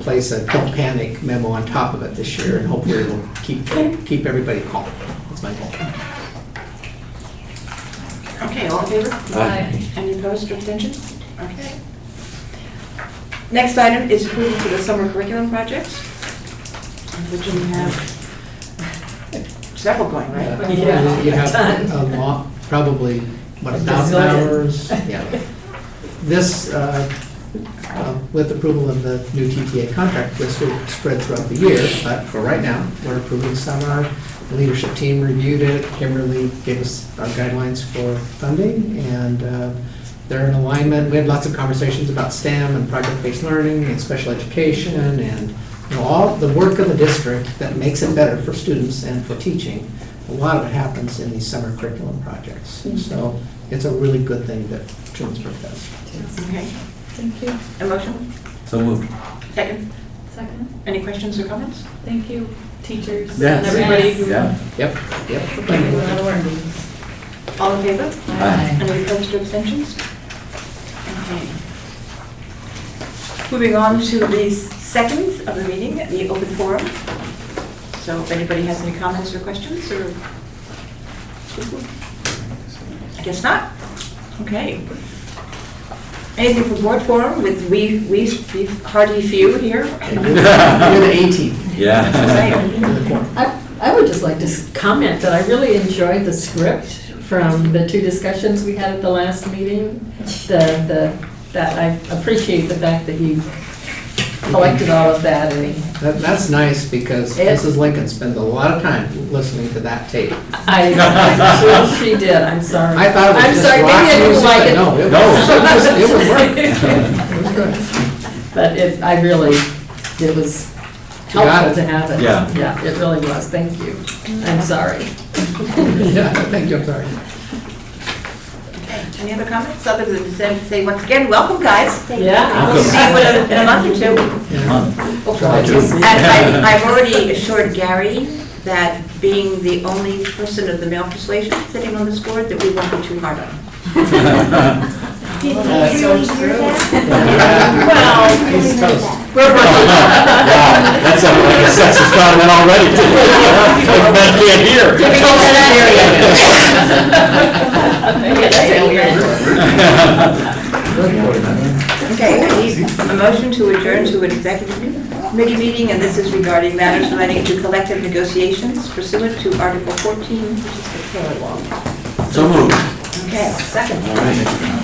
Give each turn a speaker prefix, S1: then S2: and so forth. S1: place a don't panic memo on top of it this year, and hopefully it'll keep, keep everybody calm. That's my goal.
S2: Okay, all in favor?
S3: Aye.
S2: Any opposed or abstentions? Okay. Next item is approval for the summer curriculum projects, which we have several going, right?
S3: Yeah.
S1: You have a lot, probably, what, a thousand
S3: Gazillion.
S1: hours? Yeah. This, uh, uh, with approval of the new TTA contract, this will spread throughout the year, but for right now, we're approving summer. The leadership team reviewed it, Kimberly gave us our guidelines for funding, and uh, they're in alignment. We had lots of conversations about STEM and project-based learning and special education and, you know, all the work of the district that makes it better for students and for teaching. A lot of it happens in these summer curriculum projects. So it's a really good thing that Trumansburg does.
S2: Okay,
S4: Thank you.
S2: a motion,
S3: So moved.
S2: second,
S4: Second,
S2: any questions or comments?
S4: thank you, teachers and
S3: Yes.
S4: everybody who.
S3: Yeah.
S1: Yep,
S4: for putting in a lot
S1: yep.
S4: of work.
S2: All in favor?
S3: Aye.
S2: Any opposed or abstentions? Okay. Moving on to the second of the meeting, the open forum. So if anybody has any comments or questions, or... I guess not. Okay. Anything from board forum with we, we we hardy few here?
S1: You're the A team.
S3: Yeah.
S1: You're the core.
S5: I I would just like to s- comment that I really enjoyed the script from the two discussions we had at the last meeting. The, the, that I appreciate the fact that you collected all of that and
S1: That, that's nice because
S5: It-
S1: Mrs. Lincoln spends a lot of time listening to that tape.
S5: I, I'm sure she did, I'm sorry.
S1: I thought it
S5: I'm
S1: was just
S5: sorry, maybe I
S1: rock
S5: didn't
S1: music,
S5: like
S1: but
S5: it.
S1: no, it was, it was work. It was good.
S5: But it, I really, it was
S1: You got
S5: helpful
S1: it.
S5: to have it.
S3: Yeah.
S5: Yeah, it really was, thank you. I'm sorry.
S1: Yeah, thank you, I'm sorry.
S2: Any other comments, other than to say- say, once again, welcome, guys.
S5: Yeah.
S2: We'll see you in a- in a month or two.
S3: Month.
S1: Try to-
S3: Apologies.
S2: And I- I've already assured Gary that being the only person of the male persuasion sitting on this board, that we won't be too hard on him.
S6: Did
S1: Well,
S6: you
S1: that
S6: really hear that?
S5: Well,
S1: He's toast.
S5: we're
S3: Wow,
S5: working.
S3: that's a like a sexist comment already. Like men can't hear.
S5: Typical
S2: scenario.
S5: Yeah, that's it, we're-
S2: Okay, I need a motion to adjourn to an executive committee meeting, and this is regarding matters relating to collective negotiations pursuant to Article 14, which is the Taylor Law.
S3: So moved.
S2: Okay, second.
S3: All right.